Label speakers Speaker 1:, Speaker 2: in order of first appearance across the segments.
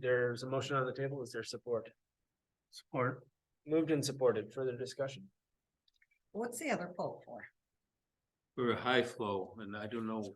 Speaker 1: There's a motion on the table. Is there support? Support. Moved and supported. Further discussion?
Speaker 2: What's the other poll for?
Speaker 3: for a high flow, and I don't know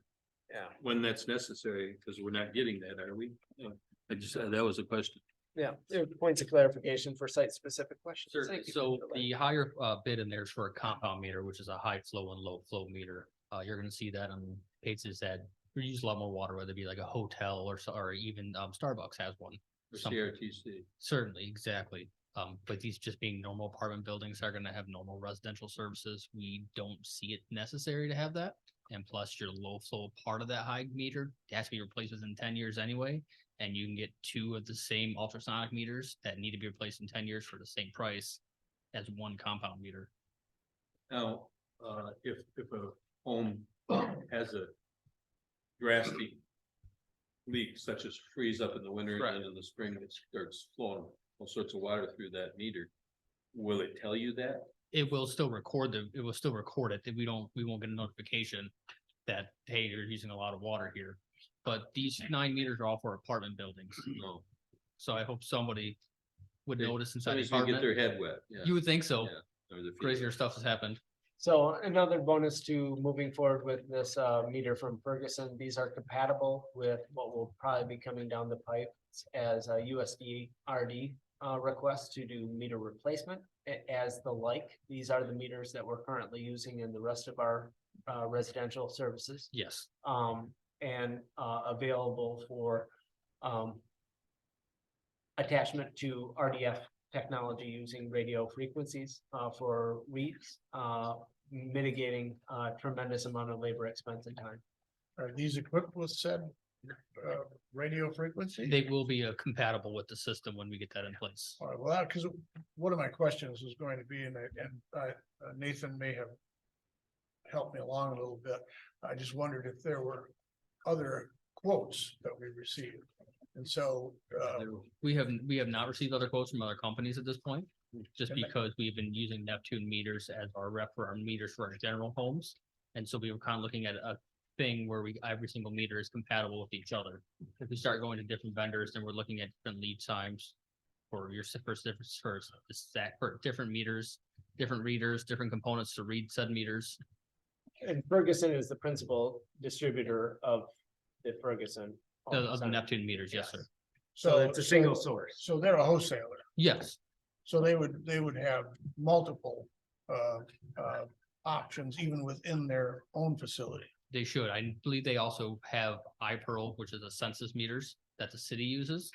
Speaker 1: Yeah.
Speaker 3: when that's necessary, because we're not getting that, are we? Uh, I just, uh, that was a question.
Speaker 1: Yeah, there are points of clarification for site-specific questions.
Speaker 4: Sure.
Speaker 1: Thank you.
Speaker 4: So the higher uh bid in there is for a compound meter, which is a high flow and low flow meter. Uh, you're gonna see that on places that use a lot more water, whether it be like a hotel or so, or even um Starbucks has one.
Speaker 3: For
Speaker 4: Something.
Speaker 3: CRTC,
Speaker 4: Certainly, exactly. Um, but these just being normal apartment buildings are gonna have normal residential services. We don't see it necessary to have that. And plus your low flow part of that high meter has to be replaced within ten years anyway. And you can get two of the same ultrasonic meters that need to be replaced in ten years for the same price as one compound meter.
Speaker 3: now, uh, if, if a home has a drastic leak such as freeze up in the winter and then in the spring it starts flowing all sorts of water through that meter, will it tell you that?
Speaker 4: It will still record the, it will still record it. that We don't, we won't get a notification that, hey, you're using a lot of water here. But these nine meters are all for apartment buildings.
Speaker 3: No,
Speaker 4: So I hope somebody would
Speaker 3: They-
Speaker 4: notice inside the
Speaker 3: somebody's gonna get
Speaker 4: apartment.
Speaker 3: their head wet, yeah.
Speaker 4: You would think so.
Speaker 3: Yeah. or their feet
Speaker 4: Crazier
Speaker 3: wet.
Speaker 4: stuff has happened.
Speaker 1: So another bonus to moving forward with this uh meter from Ferguson, these are compatible with what will probably be coming down the pipe as a USD RD uh request to do meter replacement a- as the like. These are the meters that we're currently using in the rest of our uh residential services
Speaker 4: Yes.
Speaker 1: um, and, uh, available for, um, attachment to RDF technology using radio frequencies, uh, for weeks, uh, mitigating, uh, tremendous amount of labor expense and time.
Speaker 5: Are these equipped with said uh radio frequency?
Speaker 4: They will be uh, compatible with the system when we get that in place.
Speaker 5: All right, well, because one of my questions was going to be, and I, and I- uh, Nathan may have helped me along a little bit. I just wondered if there were other quotes that we received. And so, uh,
Speaker 4: We have, we have not received other quotes from other companies at this point, just
Speaker 5: Okay.
Speaker 4: because we've been using Neptune meters as our rep for our meters for our general homes. And so we were kind of looking at a thing where we, every single meter is compatible with each other. If we start going to different vendors, then we're looking at different lead times for your, s- for, s- for s- for stack, for different meters, different readers, different components to read said meters.
Speaker 1: And Ferguson is the principal distributor of the Ferguson.
Speaker 4: The,
Speaker 1: home
Speaker 4: uh, of the
Speaker 1: center.
Speaker 4: Neptune meters, yes, sir.
Speaker 1: So
Speaker 5: so,
Speaker 1: it's a single
Speaker 5: so,
Speaker 1: source.
Speaker 5: so they're a wholesaler.
Speaker 4: Yes,
Speaker 5: So they would, they would have multiple uh, uh, options even within their own facility.
Speaker 4: they should. I believe they also have iPearl, which is a census meters that the city uses.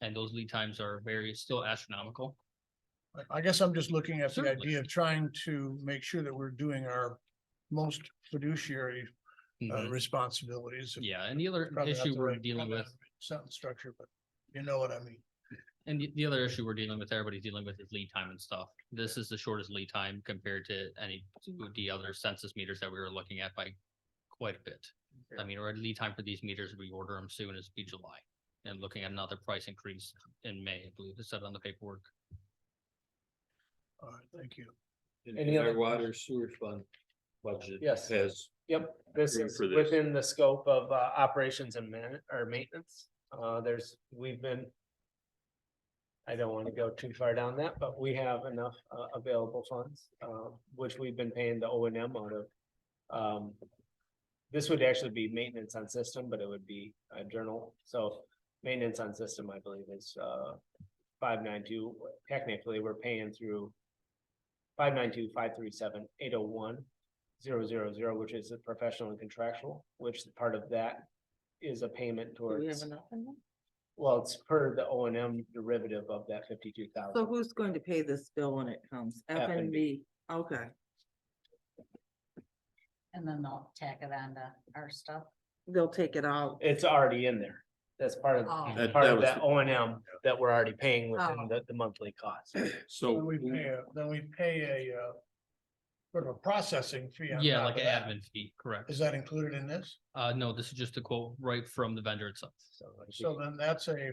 Speaker 4: And those lead times are very, still astronomical.
Speaker 5: I- I guess I'm just looking at the
Speaker 4: Certainly.
Speaker 5: idea of trying to make sure that we're doing our most fiduciary uh,
Speaker 4: Mhm.
Speaker 5: responsibilities.
Speaker 4: Mm-hmm. Yeah, and the other
Speaker 5: Probably not
Speaker 4: issue
Speaker 5: the
Speaker 4: we're
Speaker 5: right-
Speaker 4: dealing
Speaker 5: probably
Speaker 4: with
Speaker 5: not the right Sentence structure, but you know what I mean.
Speaker 4: And the, the other issue we're dealing with, everybody's dealing with is lead time and stuff. This is the shortest lead time compared to any of the other census meters that we were looking at by quite a bit. I mean, our lead time for these meters, we order them soon as be July and looking at another price increase in May, I believe it said on the paperwork.
Speaker 5: All right, thank you.
Speaker 3: And
Speaker 1: Any
Speaker 3: our
Speaker 1: other-
Speaker 3: water sewer fund budget
Speaker 1: Yes.
Speaker 3: has
Speaker 1: Yep, this
Speaker 3: Room
Speaker 1: is
Speaker 3: for this.
Speaker 1: within the scope of, uh, operations and man, or maintenance. Uh, there's, we've been. I don't wanna go too far down that, but we have enough, uh, available funds, uh, which we've been paying the O and M out of. Um, this would actually be maintenance on system, but it would be a journal, so maintenance on system, I believe, is, uh. Five nine two, technically, we're paying through. Five nine two, five three seven, eight oh one, zero zero zero, which is a professional and contractual, which part of that is a payment towards,
Speaker 2: enough in them?
Speaker 1: well, it's per the O and M derivative of that fifty-two
Speaker 6: So
Speaker 1: thousand.
Speaker 6: who's going to pay this bill when it comes? F and B, okay,
Speaker 2: And then they'll tack it on to our stuff.
Speaker 6: they'll take it out.
Speaker 1: It's already in there. Uh, That's part of,
Speaker 2: Oh.
Speaker 3: That-
Speaker 1: part
Speaker 3: that
Speaker 1: of
Speaker 3: was
Speaker 1: that
Speaker 3: the-
Speaker 1: O and M that we're already paying
Speaker 6: Oh.
Speaker 1: within the, the monthly cost.
Speaker 3: so.
Speaker 5: Then we pay, a- then we pay a uh, sort of a processing fee. on
Speaker 4: Yeah,
Speaker 5: top
Speaker 4: like
Speaker 5: of
Speaker 4: an
Speaker 5: that.
Speaker 4: admin fee, correct?
Speaker 5: Is that included in this?
Speaker 4: Uh, no, this is just a quote right from the vendor itself.
Speaker 1: So like,
Speaker 5: So then that's a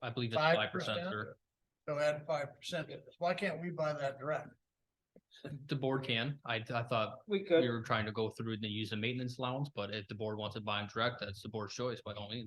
Speaker 4: I believe it's
Speaker 5: five
Speaker 4: five percent
Speaker 5: percent.
Speaker 4: or
Speaker 5: So add five percent. Why can't we buy that direct?
Speaker 4: the board can. I, I thought
Speaker 1: We
Speaker 4: we
Speaker 1: could.
Speaker 4: were trying to go through and use the maintenance allowance, but if the board wants to buy them direct, that's the board's choice by all means.